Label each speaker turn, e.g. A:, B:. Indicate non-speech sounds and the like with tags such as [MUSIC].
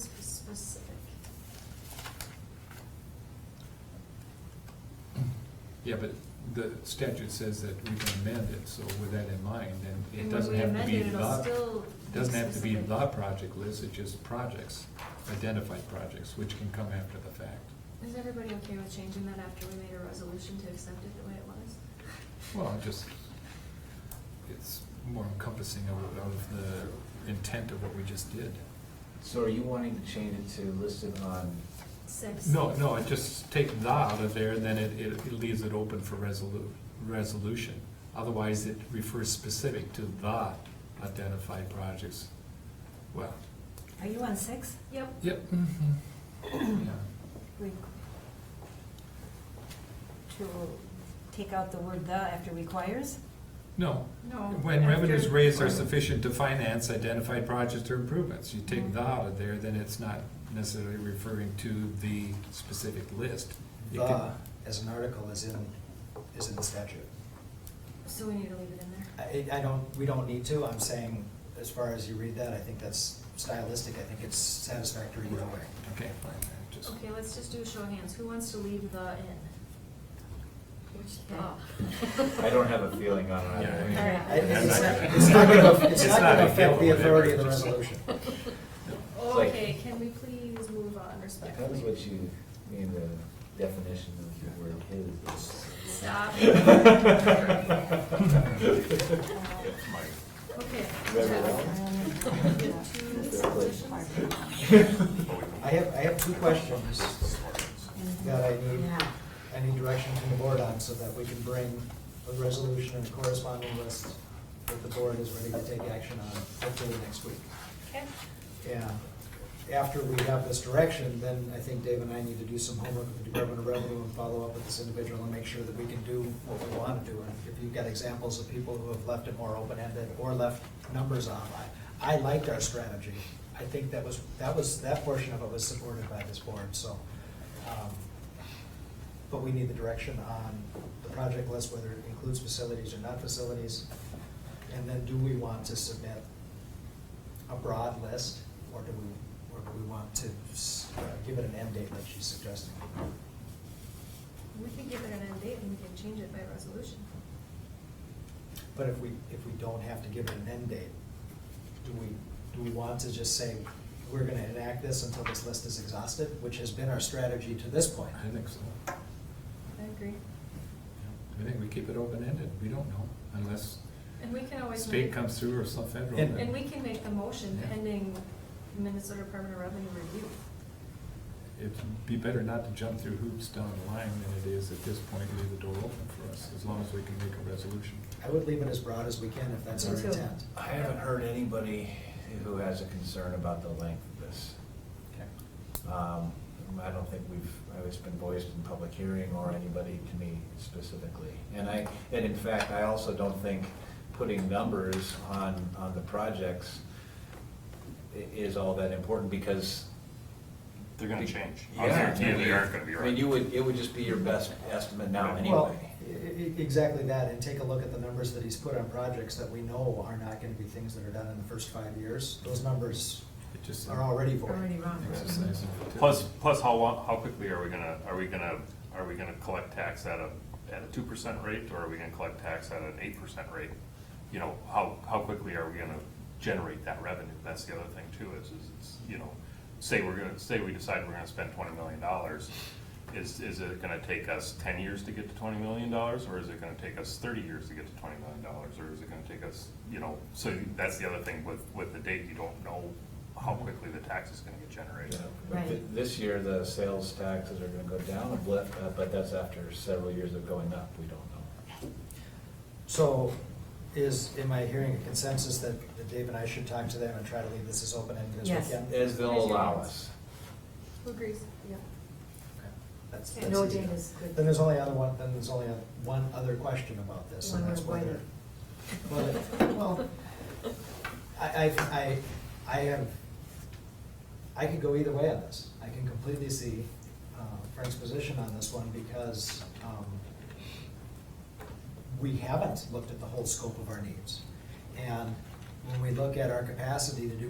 A: specific.
B: Yeah, but the statute says that we can amend it, so with that in mind, then
A: And
B: it
A: when
B: doesn't
A: we
B: have to
A: amend
B: be
A: it, it'll
B: the,
A: still be
B: doesn't have to be
A: specific.
B: the project list, it's just projects, identified projects, which can come after the fact.
A: Is everybody okay with changing that after we made a resolution to accept it the way it was?
B: Well, it just, it's more encompassing of, of the intent of what we just did.
C: So are you wanting to change it to listed on,
A: Six.
B: No, no, it just take the out of there, then it, it it leaves it open for resolu- resolution. Otherwise, it refers specific to the identified projects. Well,
D: Are you on six?
A: Yep.
B: yep. mhm, yeah.
D: We- To take out the word the after requires?
B: No.
A: No,
B: When revenues
A: after-
B: raised are sufficient to finance identified projects or improvements, you take
A: Mhm.
B: the out of there, then it's not necessarily referring to the specific list. It can-
E: The, as an article, is in, is in the statute.
A: So we need to leave it in there.
E: I, I don't, we don't need to, I'm saying, as far as you read that, I think that's stylistic, I think it's satisfactory either way.
B: Okay, fine, I just.
A: Okay, let's just do a show of hands. Who wants to leave the in? Which the? [LAUGHS]
C: I don't have a feeling on it.
B: Yeah, I mean-
A: All right.
E: I- It's not it's not gonna, it's
B: It's
E: not
B: not
E: gonna
B: a
E: affect the
B: deal, whatever,
E: authority of the
B: just-
E: resolution.
A: Okay, can we please move on
C: That was
A: respectfully?
C: what you mean, the definition of the word his. [LAUGHS]
A: Stop. Okay.
E: I have, I have two questions that I need,
D: Yeah.
E: I need direction from the board on, so that we can bring a resolution and a corresponding list that the board is ready to take action on, hopefully next week.
A: Okay.
E: Yeah, after we have this direction, then I think Dave and I need to do some homework with the Department of Revenue and follow up with this individual and make sure that we can do what we want to do. And if you've got examples of people who have left it more open-ended or left numbers on, I, I liked our strategy. I think that was, that was, that portion of it was supported by this board, so. um, But we need the direction on the project list, whether it includes facilities or not facilities. And then do we want to submit a broad list, or do we, or do we want to s- uh, give it an end date like she's suggesting?
A: We can give it an end date and we can change it by resolution.
E: But if we, if we don't have to give it an end date, do we, do we want to just say, we're gonna enact this until this list is exhausted, which has been our strategy to this point?
B: I think so.
A: I agree.
B: I think we keep it open-ended, we don't know, unless
A: And we can always.
B: state
A: make-
B: comes through or some federal.
E: And-
A: And we can make the motion
B: Yeah.
A: pending Minnesota Department of Revenue review.
B: It'd be better not to jump through hoops down the line than it is at this point, leave the door open for us, as long as we can make a resolution.
E: I would leave it as broad as we can if that's our
D: Me too.
E: intent.
C: I haven't heard anybody who has a concern about the length of this. Um, I don't think we've, it's been voiced in public hearing or anybody to me specifically. And I, and in fact, I also don't think putting numbers on, on the projects i- is all that important because.
F: They're gonna change.
C: Yeah.
F: They really aren't gonna be
C: I mean, you
F: right.
C: would, it would just be your best estimate now
E: Well,
C: anyway.
E: e- e- Exactly that, and take a look at the numbers that he's put on projects that we know are not gonna be things that are done in the first five years. Those numbers
B: It just.
E: are already void.
B: Exercise. in futility.
F: Plus, plus how, lo- how quickly are we gonna, are we gonna, are we gonna collect tax at a, at a two percent rate, or are we gonna collect tax at an eight percent rate? You know, how, how quickly are we gonna generate that revenue? That's the other thing too, is, is, it's, you know, say we're gonna, say we decide we're gonna spend twenty million dollars, is, is it gonna take us ten years to get to twenty million dollars, or is it gonna take us thirty years to get to twenty million dollars, or is it gonna take us, you know, so that's the other thing with, with the date, you don't know how quickly the tax is gonna get generated.
C: But th-
D: Right.
C: This year, the sales taxes are gonna go down a blip, uh, but that's after several years of going up, we don't know.
E: So is, am I hearing a consensus that that Dave and I should talk to them and try to leave this as open-ended as we
D: Yes.
E: can?
C: As they'll
A: Raise your
C: allow
A: hands.
C: us.
A: Who agrees? Yeah.
E: That's-
A: Okay.
E: that's
D: No
E: easy.
D: date is good.
E: Then there's only other one, then there's only one other question about this, and
D: One
E: that's
D: word
E: whether. whether- Well, I, I, I, I have, I could go either way on this. I can completely see uh, Frank's position on this one because um, we haven't looked at the whole scope of our needs. And when we look at our capacity to do